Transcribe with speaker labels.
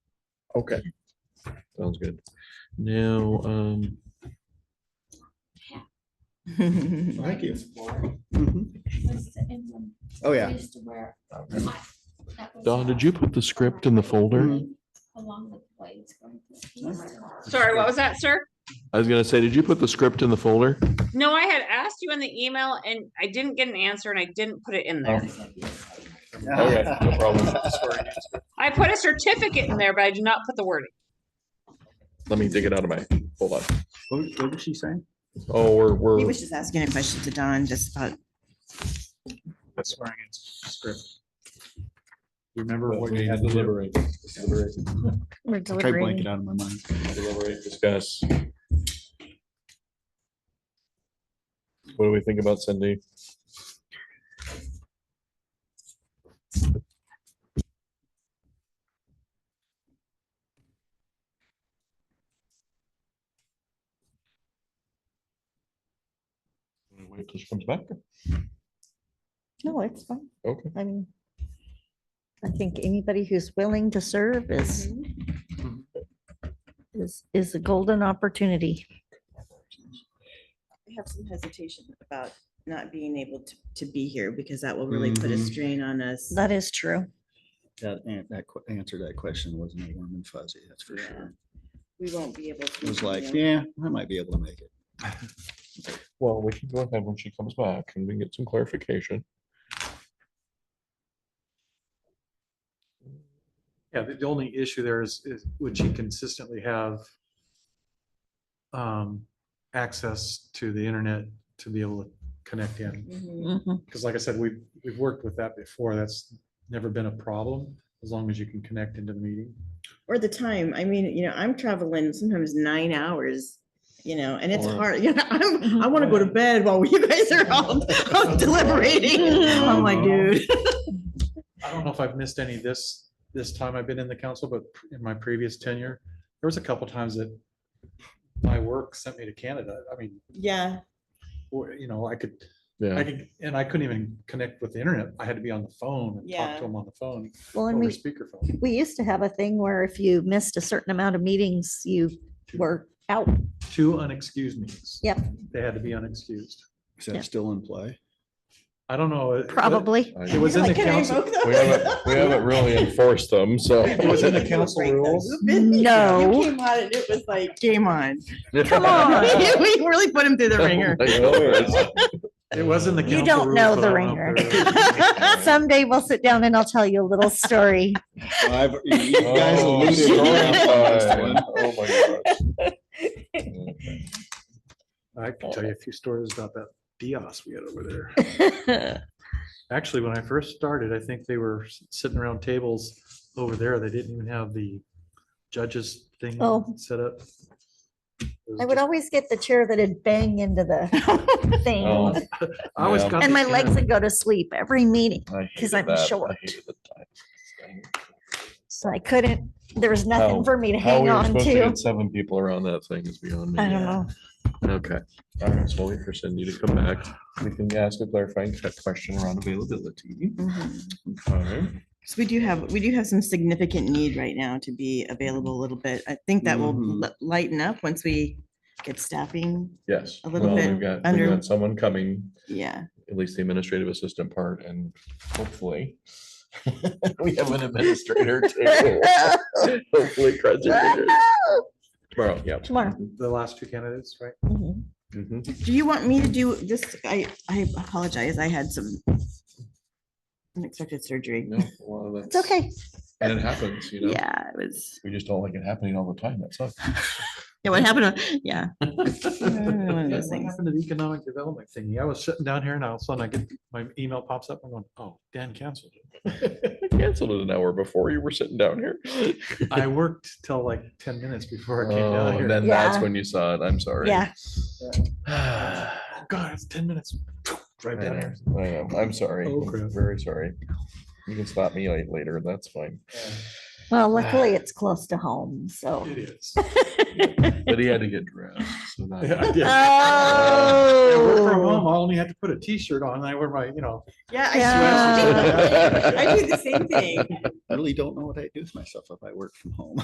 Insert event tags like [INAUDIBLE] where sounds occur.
Speaker 1: Okay,
Speaker 2: Sounds good. Now, um,
Speaker 1: thank you.
Speaker 3: was the emblem
Speaker 1: Oh,
Speaker 3: I
Speaker 1: yeah.
Speaker 3: used to wear. That was,
Speaker 2: Mm-hmm. Don,
Speaker 3: uh,
Speaker 2: did you put the script in the
Speaker 4: Mm-hmm.
Speaker 2: folder?
Speaker 3: Along with blades going through.
Speaker 5: Sorry, what was that, sir?
Speaker 2: I was gonna say, did you put the script in the folder?
Speaker 5: No, I had asked you in the email and I didn't get an answer and I didn't put it in there. I put a certificate in there, but I did not put the word.
Speaker 2: Let me dig it out of my, hold on.
Speaker 6: What what was she saying?
Speaker 2: Oh, we're,
Speaker 4: He
Speaker 2: we're,
Speaker 4: was just asking a question to Don just about
Speaker 6: Swearing in script. Remember what
Speaker 2: we
Speaker 6: you had to do?
Speaker 2: deliberate,
Speaker 7: We're
Speaker 6: Try blank
Speaker 7: delivering.
Speaker 6: it out of my mind.
Speaker 2: deliberate, discuss. What do we think about Cindy? Wait till she comes back?
Speaker 7: No, it's fine.
Speaker 2: Okay.
Speaker 7: I mean, I think anybody who's willing to serve is is, is a golden opportunity.
Speaker 4: I have some hesitation about not being able to, to be here because that will really put a
Speaker 6: Mhm.
Speaker 4: strain on us.
Speaker 7: That is true.
Speaker 6: That, an- that que- answer to that question wasn't a warm and fuzzy, that's for sure.
Speaker 4: We won't be able to.
Speaker 6: It was like,
Speaker 4: you know,
Speaker 6: yeah, I might be able to make it.
Speaker 2: Well, we can go ahead when she comes back and we can get some clarification.
Speaker 8: Yeah, the, the only issue there is, is would she consistently have um, access to the internet to be able to connect in?
Speaker 4: mhm.
Speaker 8: Because like I said, we've, we've worked with that before. That's never been a problem as long as you can connect into the meeting.
Speaker 4: Or the time, I mean, you know, I'm traveling sometimes nine hours, you know, and it's
Speaker 2: Or-
Speaker 4: hard, [LAUGHS] you know, I'm, I want to go to bed while you guys are all [LAUGHS] out deliberating. I'm like, dude. [LAUGHS]
Speaker 8: I don't know if I've missed any this, this time I've been in the council, but in my previous tenure, there was a couple times that my work sent me to Canada. I mean,
Speaker 4: Yeah,
Speaker 8: or, you know, I could I
Speaker 2: Yeah.
Speaker 8: could, and I couldn't even connect with the internet. I had to be on the phone and talk
Speaker 4: Yeah.
Speaker 8: to him on the phone
Speaker 7: Well, and
Speaker 8: over
Speaker 7: we,
Speaker 8: speakerphone.
Speaker 7: we used to have a thing where if you missed a certain amount of meetings, you were out.
Speaker 8: Two unexcused meetings.
Speaker 7: Yep.
Speaker 8: They had to be unexcused.
Speaker 6: Is
Speaker 7: Yeah.
Speaker 6: that still in play?
Speaker 8: I don't know.
Speaker 2: [LAUGHS]
Speaker 8: it-
Speaker 7: Probably.
Speaker 8: It was in the
Speaker 4: Like, can I
Speaker 8: council,
Speaker 4: invoke them?
Speaker 2: We haven't, we
Speaker 4: [LAUGHS]
Speaker 2: haven't really enforced them, so.
Speaker 8: it was in the
Speaker 2: [LAUGHS]
Speaker 8: council
Speaker 4: Break those.
Speaker 8: rules.
Speaker 7: No.
Speaker 4: [LAUGHS] You came on and it was like, game on.
Speaker 7: Come on.
Speaker 4: [LAUGHS] We really put him through
Speaker 2: Oh,
Speaker 4: the ringer.
Speaker 8: It was in the council.
Speaker 7: You don't
Speaker 8: rules,
Speaker 7: know
Speaker 8: but
Speaker 7: the
Speaker 8: I don't know
Speaker 7: ringer. [LAUGHS]
Speaker 8: if there is-
Speaker 7: Someday we'll sit down and I'll tell you a little story.
Speaker 6: I've- you- you guys
Speaker 2: Oh,
Speaker 6: alluded to that
Speaker 2: story
Speaker 6: one.
Speaker 2: time. Oh my gosh.
Speaker 8: I can tell you a few stories about that Dios we had over there.
Speaker 7: Well,
Speaker 8: Actually, when I first started, I think they were s- sitting around tables over there. They didn't even have the judges thing
Speaker 7: Oh.
Speaker 8: set up. It was
Speaker 7: I would
Speaker 8: just-
Speaker 7: always get the chair that'd bang into the
Speaker 2: Oh,
Speaker 7: thing
Speaker 8: I always
Speaker 2: Yeah.
Speaker 8: got
Speaker 7: and
Speaker 8: the
Speaker 7: my legs
Speaker 8: internet.
Speaker 7: would go to sleep every meeting.
Speaker 2: I
Speaker 7: 'Cause
Speaker 2: hated
Speaker 7: I'm
Speaker 2: that. I
Speaker 7: short.
Speaker 2: hated the time.
Speaker 7: So I couldn't, there was
Speaker 2: How-
Speaker 7: nothing for me to
Speaker 2: How
Speaker 7: hang
Speaker 2: we were
Speaker 7: on
Speaker 2: supposed to
Speaker 7: to.
Speaker 2: get seven people around that thing is beyond me.
Speaker 7: I don't know.
Speaker 2: Okay. All right, so we'll wait for Cindy to come back. We can ask a clarifying question around availability. All right.
Speaker 4: Mm-hmm. So we do have, we do have some significant need right now to be available a little bit. I think that will
Speaker 6: Mhm.
Speaker 4: li- lighten up once we get staffing.
Speaker 2: Yes.
Speaker 4: A little
Speaker 2: Well,
Speaker 4: bit
Speaker 2: we've got- We've
Speaker 4: under-
Speaker 2: got someone coming
Speaker 4: Yeah.
Speaker 2: at least the administrative assistant part and hopefully [LAUGHS] we have an administrator
Speaker 7: [LAUGHS]
Speaker 2: too. Hopefully graduated tomorrow, yeah.
Speaker 7: Tomorrow.
Speaker 8: The last two candidates, right?
Speaker 4: Mm-hmm.
Speaker 7: Mhm.
Speaker 2: Mhm.
Speaker 4: Do you want me to do this? I, I apologize. I had some unexpected surgery.
Speaker 2: No, well,
Speaker 7: It's
Speaker 2: that's-
Speaker 7: okay.
Speaker 2: And it happens, you know,
Speaker 4: Yeah, it was,
Speaker 2: we just don't like it happening all the time. That sucks.
Speaker 4: yeah, what happened? to- Yeah. One of
Speaker 8: [LAUGHS] Yeah,
Speaker 4: those
Speaker 8: What
Speaker 4: things.
Speaker 8: happened to the economic development thingy? I was sitting down here and all of a sudden I get, my email pops up. I'm going, oh, Dan canceled it.
Speaker 2: [LAUGHS] Canceled it an hour before you were sitting down here.
Speaker 8: [LAUGHS] I worked till like ten minutes before I came
Speaker 2: Oh,
Speaker 8: down
Speaker 2: and
Speaker 8: here.
Speaker 2: then that's
Speaker 7: Yeah.
Speaker 2: when you saw it. I'm sorry.
Speaker 7: Yeah.
Speaker 8: [SIGHS] Oh, God, it's ten minutes. [SIGHS]
Speaker 2: I
Speaker 8: Drive down
Speaker 2: know,
Speaker 8: here.
Speaker 2: I know. I'm sorry.
Speaker 8: Oh,
Speaker 2: I'm
Speaker 8: crap.
Speaker 2: Very sorry. You can stop me like, later. That's fine.
Speaker 7: Well, luckily it's close to home, so.
Speaker 8: It is.
Speaker 2: But he had to get dressed. So that. [LAUGHS]
Speaker 8: [LAUGHS] Yeah, I
Speaker 7: [LAUGHS]
Speaker 8: did. I work from home.
Speaker 7: Oh.
Speaker 8: I only had to put a T-shirt on and I wear my, you know,
Speaker 4: Yeah.
Speaker 7: Yeah.
Speaker 4: [LAUGHS] I- I do the same thing.
Speaker 6: I really don't know what I'd do with myself if I worked from home.